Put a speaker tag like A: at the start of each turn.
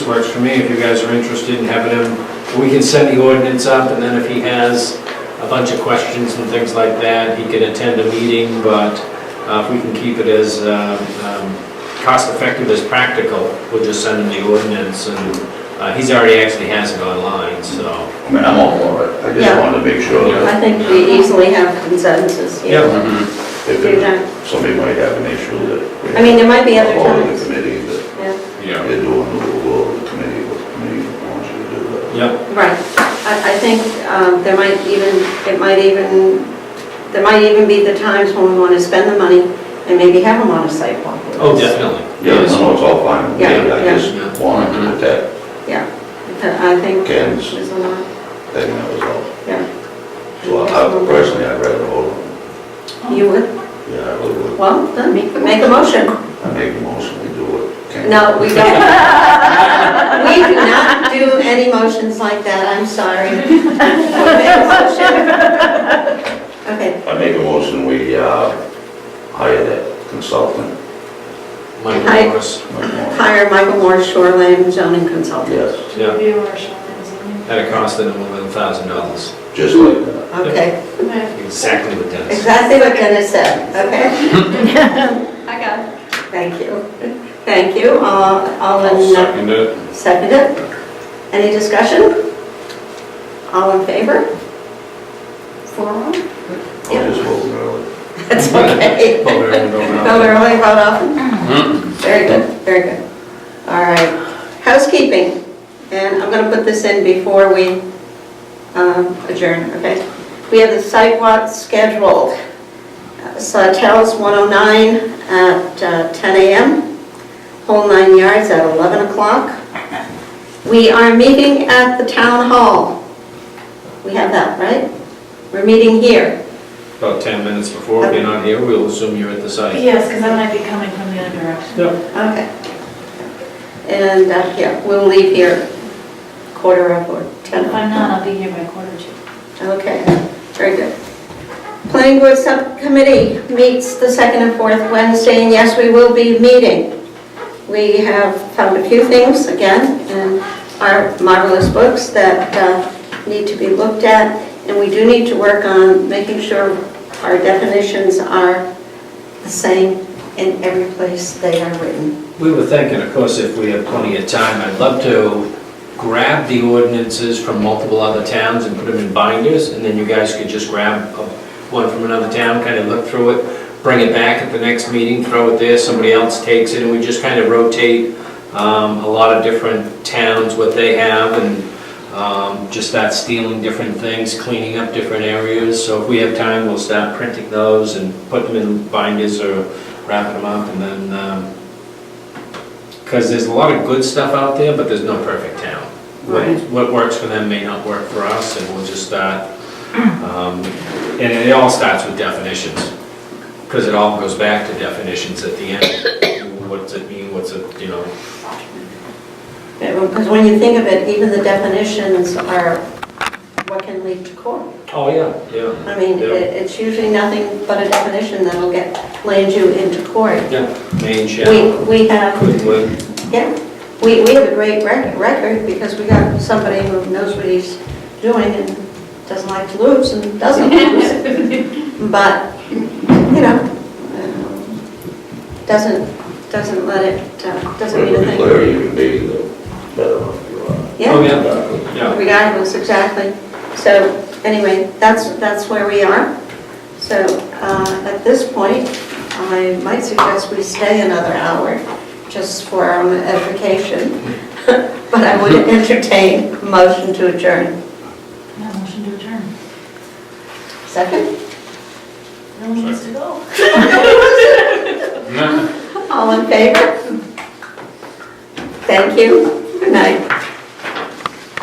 A: works for me, if you guys are interested in having him, we can send the ordinance up, and then if he has a bunch of questions and things like that, he can attend a meeting, but uh, if we can keep it as um, um, cost-effective as practical, we'll just send him the ordinance, and uh, he's already actually has it online, so.
B: I mean, I'm all for it, I just
C: Yeah.
B: wanted to make sure that
C: I think we easily have consensus here.
B: if
C: Do that.
B: there- somebody might have an issue that. we
C: I mean, there might be other
B: have all in
C: times.
B: the committee that
C: Yeah,
D: Yeah,
B: they're doing the rule of the committee, what the committee wants you to do.
A: Yep,
C: Right, I, I think um, there might even, it might even, there might even be the times when we want to spend the money and maybe have them on a sidewalk.
A: oh, definitely.
B: Yeah, no, no, it's all fine,
C: Yeah,
B: I
C: yeah.
B: just wanted to protect
C: Yeah, I think
B: Ken's
C: there's a lot,
B: thing, that was all.
C: yeah.
B: So
C: Mm-hmm.
B: I personally, I'd rather hold them,
C: You would,
B: yeah, I really would.
C: well, then make, make a motion.
B: I make a motion, we do what can.
C: No, we don't. We do not do any motions like that, I'm sorry. Okay,
B: I make a motion, we uh, hire that consultant.
A: Michael
C: Hi.
A: Morris,
B: Mike Moore.
C: hire Michael Moore, shoreline zoning consultant.
B: Yes,
A: yeah,
E: Review our shoreline zoning.
A: at a cost of eleven thousand dollars,
B: just like that.
C: Okay,
E: Okay,
A: exactly what Dennis said.
C: exactly what Dennis said, okay?
E: I got it.
C: Thank you, thank you, all all
D: I'll
C: in,
D: second it.
C: seconded. Any discussion? All in favor? Four, oh?
B: I'll just hold it early.
C: that's okay.
A: Well, they're going out.
C: No, they're only about often. Very good, very good. All right, housekeeping, and I'm gonna put this in before we um, adjourn, okay? We have the sidewalk scheduled, Uh, Sawtelle's 109 at uh, 10 a.m., Whole Nine Yards at 11 o'clock. We are meeting at the town hall. We have that, right? We're meeting here.
A: About ten minutes before, if you're not here, we'll assume you're at the site.
E: Yes, because I might be coming from the other direction.
C: Okay. And, uh, yeah, we'll leave here quarter of or 10
E: If I'm not, I'll be here by quarter to.
C: Okay, very good. Planning Board Subcommittee meets the second and fourth Wednesday, and yes, we will be meeting. We have found a few things, again, in our marvelous books that uh, need to be looked at, and we do need to work on making sure our definitions are the same in every place they are written.
A: We were thinking, of course, if we have plenty of time, I'd love to grab the ordinances from multiple other towns and put them in binders, and then you guys could just grab a- one from another town, kind of look through it, bring it back at the next meeting, throw it there, somebody else takes it, and we just kind of rotate um, a lot of different towns, what they have, and um, just start stealing different things, cleaning up different areas. So if we have time, we'll start printing those and put them in binders or wrapping them up, and then um, because there's a lot of good stuff out there, but there's no perfect town. What-
C: Right.
A: What works for them may not work for us, and we'll just start, um, and it all starts with definitions, because it all goes back to definitions at the end. What does it mean, what's it, you know,
C: Because when you think of it, even the definitions are what can lead to court.
A: oh, yeah, yeah,
C: I mean, it- it's usually nothing but a definition that'll get, land you into court.
A: yeah, main
C: We,
A: channel,
C: we have,
A: couldn't live.
C: yeah, we, we have a great rec- record because we got somebody who knows what he's doing and doesn't like to lose and doesn't lose. But, you know, um, doesn't, doesn't let it, uh, doesn't mean a
B: Whatever the
C: thing.
B: clarity you can be, the better off you are.
A: Oh,
C: Yeah,
A: yeah, yeah.
C: regardless, exactly. So anyway, that's, that's where we are. So uh, at this point, I might suggest we stay another hour just for our own edification. But I would entertain a motion to adjourn.
E: Now, motion to adjourn.
C: Second?
E: No one wants to go.
D: No.
C: All in favor? Thank you.